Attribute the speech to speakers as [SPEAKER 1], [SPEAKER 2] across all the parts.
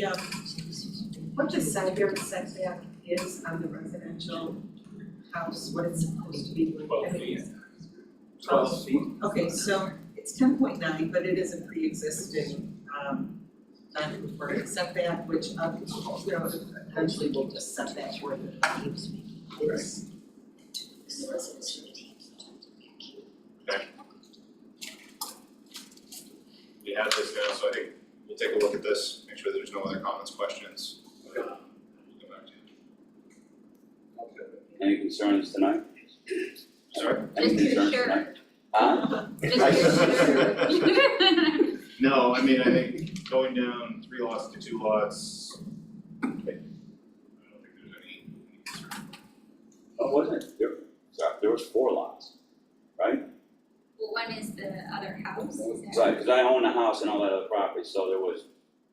[SPEAKER 1] Yeah. What the setback, setback is on the residential house, what it's supposed to be?
[SPEAKER 2] Twelve feet.
[SPEAKER 1] Twelve
[SPEAKER 2] feet.
[SPEAKER 1] Okay, so it's ten point nine, but it is a pre-existing, um, non-conforming setback, which, uh, you know, eventually we'll just set that where the is.
[SPEAKER 3] we have this now, so I think we'll take a look at this, make sure there's no other comments, questions.
[SPEAKER 2] Okay.
[SPEAKER 3] Uh, We'll go back to you.
[SPEAKER 4] Any concerns tonight?
[SPEAKER 3] Sorry?
[SPEAKER 4] Any
[SPEAKER 5] Just your
[SPEAKER 4] concerns
[SPEAKER 5] shirt.
[SPEAKER 4] tonight? Huh?
[SPEAKER 5] Just to be sure.
[SPEAKER 3] No, I mean, I think going down three lots to two lots. I don't think there's any, any concern.
[SPEAKER 4] Oh, wasn't it? There, sorry, there was four lots, right?
[SPEAKER 5] Well, one is the other house, is that?
[SPEAKER 4] Right, cause I own a house and all that other property, so there was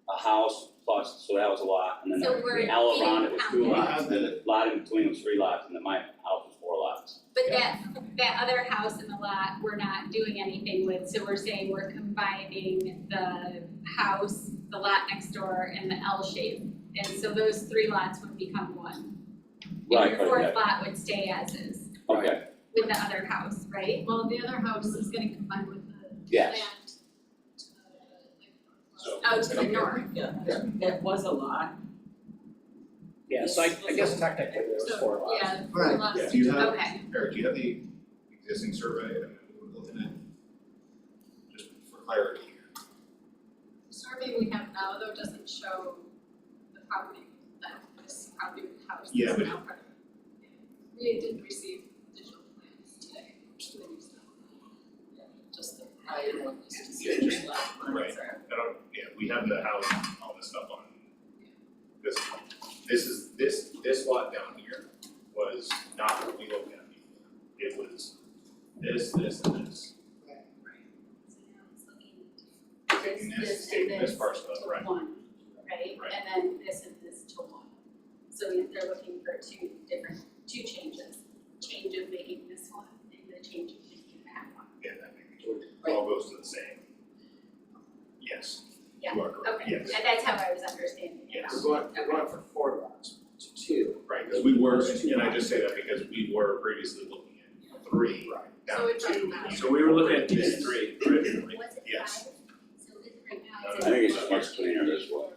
[SPEAKER 4] a house plus, so that was a lot, and then
[SPEAKER 5] So we're
[SPEAKER 4] the L around it was two
[SPEAKER 5] getting
[SPEAKER 4] lots.
[SPEAKER 3] counted.
[SPEAKER 4] The lot in between was three lots, and then my house was four lots.
[SPEAKER 5] But that, that other house in the lot, we're not doing anything with, so we're saying we're combining the house, the lot next door, and the L shape. And so those three lots would become one.
[SPEAKER 4] Right,
[SPEAKER 5] And your
[SPEAKER 4] right,
[SPEAKER 5] fourth lot would stay as is
[SPEAKER 4] Okay,
[SPEAKER 5] with the other house, right?
[SPEAKER 6] Well, the other house is getting combined with the
[SPEAKER 4] yes,
[SPEAKER 6] land.
[SPEAKER 3] So-
[SPEAKER 6] oh,
[SPEAKER 5] Out to the north.
[SPEAKER 1] Yeah, that was a lot.
[SPEAKER 7] Yeah, so I, I guess technically there was four lots.
[SPEAKER 6] Yeah,
[SPEAKER 1] Right.
[SPEAKER 6] lots
[SPEAKER 3] Yeah,
[SPEAKER 6] of
[SPEAKER 3] do you have,
[SPEAKER 5] Okay,
[SPEAKER 3] Eric, do you have the existing survey, I mean, we're looking at, just for clarity here.
[SPEAKER 6] survey we have now though doesn't show the property that this property with house
[SPEAKER 3] Yeah,
[SPEAKER 6] is
[SPEAKER 3] but-
[SPEAKER 6] now part of. Yeah, We didn't receive digital plans today, which they used now. Yeah, Just the prior one was just.
[SPEAKER 3] Yeah, just-
[SPEAKER 6] the last one,
[SPEAKER 3] right.
[SPEAKER 6] sorry.
[SPEAKER 3] I don't, yeah, we have the house, and all this stuff on this, one. this is, this, this lot down here was not what we looked at before. It was this, this, and this, taking this, taking this parcel out, right?
[SPEAKER 6] one, right?
[SPEAKER 3] Right.
[SPEAKER 6] And then this and this to one. So if they're looking for two different, two changes, change of making this one and the change of making that one.
[SPEAKER 3] Yeah, that makes sense. It all goes to the same. Yes, you are correct,
[SPEAKER 6] Okay,
[SPEAKER 3] yes,
[SPEAKER 6] and that's how I was understanding it.
[SPEAKER 3] yes.
[SPEAKER 7] We're going, we're going from four lots to two.
[SPEAKER 3] Right, because we were, and I just say that because we were previously looking at three, down
[SPEAKER 6] So
[SPEAKER 3] to
[SPEAKER 6] it doesn't
[SPEAKER 3] two.
[SPEAKER 6] matter.
[SPEAKER 2] So we were looking at these three originally.
[SPEAKER 5] what's it five?
[SPEAKER 3] Yes.
[SPEAKER 5] So this right now
[SPEAKER 3] No,
[SPEAKER 5] is.
[SPEAKER 4] I think it's just much cleaner this way.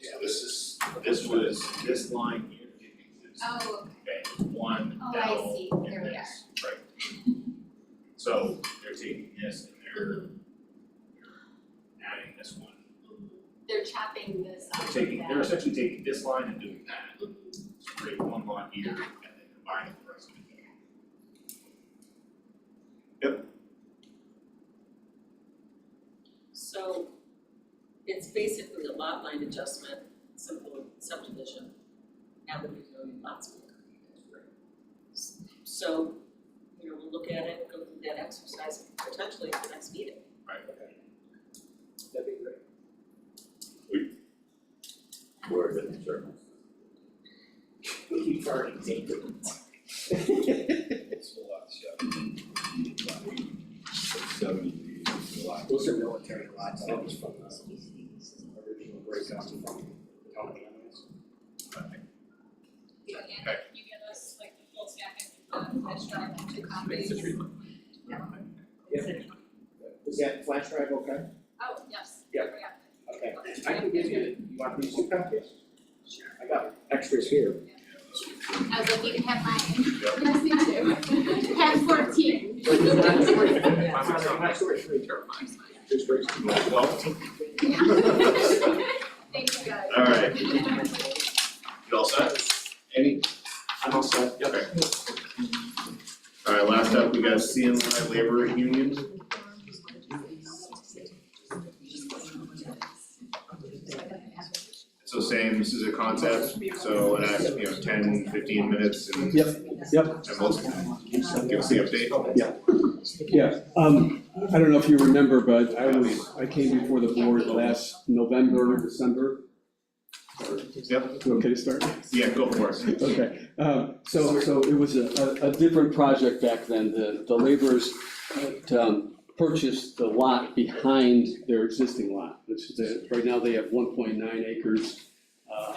[SPEAKER 3] Yeah, this is, this was, this line here, it exists.
[SPEAKER 5] Oh, okay.
[SPEAKER 3] Okay, one
[SPEAKER 5] Oh, I
[SPEAKER 3] L
[SPEAKER 5] see. There
[SPEAKER 3] and
[SPEAKER 5] we
[SPEAKER 3] this, right? So they're taking this and they're
[SPEAKER 5] Mm-hmm.
[SPEAKER 3] they're adding this one.
[SPEAKER 6] They're chopping this off
[SPEAKER 3] They're
[SPEAKER 6] of
[SPEAKER 3] taking,
[SPEAKER 6] that.
[SPEAKER 3] they're essentially taking this line and doing that. So create one line here and then combining the rest of it.
[SPEAKER 1] So it's basically a lot line adjustment, simple subdivision, now that we've known lots of it. So, you know, we'll look at it, go through that exercise potentially at the next meeting.
[SPEAKER 7] That'd be great.
[SPEAKER 4] Where is it, sir?
[SPEAKER 7] You've already taken it.
[SPEAKER 8] It's a lot, yeah. Seventy feet is a lot.
[SPEAKER 7] Those are military lots, that was from the original breakup from Tony Evans.
[SPEAKER 6] You get, you get us like the full stack and the flash drive and two copies.
[SPEAKER 7] Is that flash drive okay?
[SPEAKER 6] Oh, yes.
[SPEAKER 7] Yeah. Okay. I can give you, you want these two copies? Sure. I got extras here.
[SPEAKER 5] I was like, you can have mine.
[SPEAKER 3] Yep.
[SPEAKER 6] Yes, me too.
[SPEAKER 5] Have fourteen.
[SPEAKER 7] But it's not three.
[SPEAKER 1] Yeah.
[SPEAKER 7] I'm sorry, not three, three. Just three.
[SPEAKER 3] Well,
[SPEAKER 6] Thank you guys.
[SPEAKER 3] all right, you all set? Any,
[SPEAKER 7] I'm all set.
[SPEAKER 3] okay. All right, last up, we got CNY Labor Union. So same, this is a concept, so in, uh, you know, 10, 15 minutes and
[SPEAKER 9] Yep,
[SPEAKER 3] And most, give us the update.
[SPEAKER 9] yeah, um, I don't know if you remember, but I was, I came before the board last November, December.
[SPEAKER 3] Yep.
[SPEAKER 9] You okay to start?
[SPEAKER 3] Yeah, go for it.
[SPEAKER 9] Okay, um, so, so it was a, a, a different project back then, the, the laborers, had, um, purchased uh, the lot behind their existing lot, which is, right now they have one point nine acres uh,